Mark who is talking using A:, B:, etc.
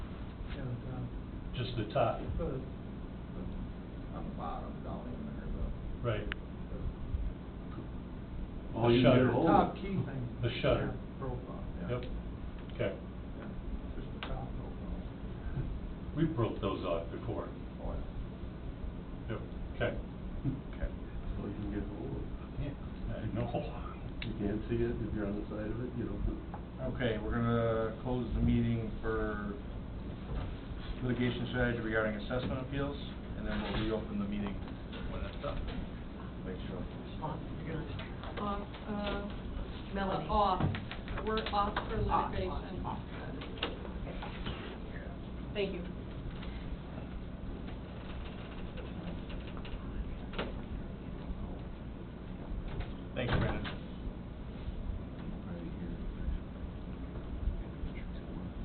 A: just the top,
B: Put it on the bottom, down in there, but
A: right,
C: Oh, you can get
A: Shutter.
C: a
B: the
C: hold
B: top
C: of
B: key
C: it.
B: thing.
A: The shutter.
B: yeah, Profile, yeah.
A: yep, okay.
B: Yeah, Just the top profile.
A: We broke those off before,
B: Oh, yeah.
A: yep, okay, okay.
C: So you can get a hold of
A: Yeah, I know.
C: it. You can't see it if you're on the side of it, you don't.
D: Okay, we're gonna close the meeting for litigation strategy regarding assessment appeals, and then we'll reopen the meeting when that's done. Make sure.
E: Off, you're gonna-
F: Off, uh.
E: Melanie.
F: Off, we're off for
E: Off,
F: litigation.
E: off, off. Thank you.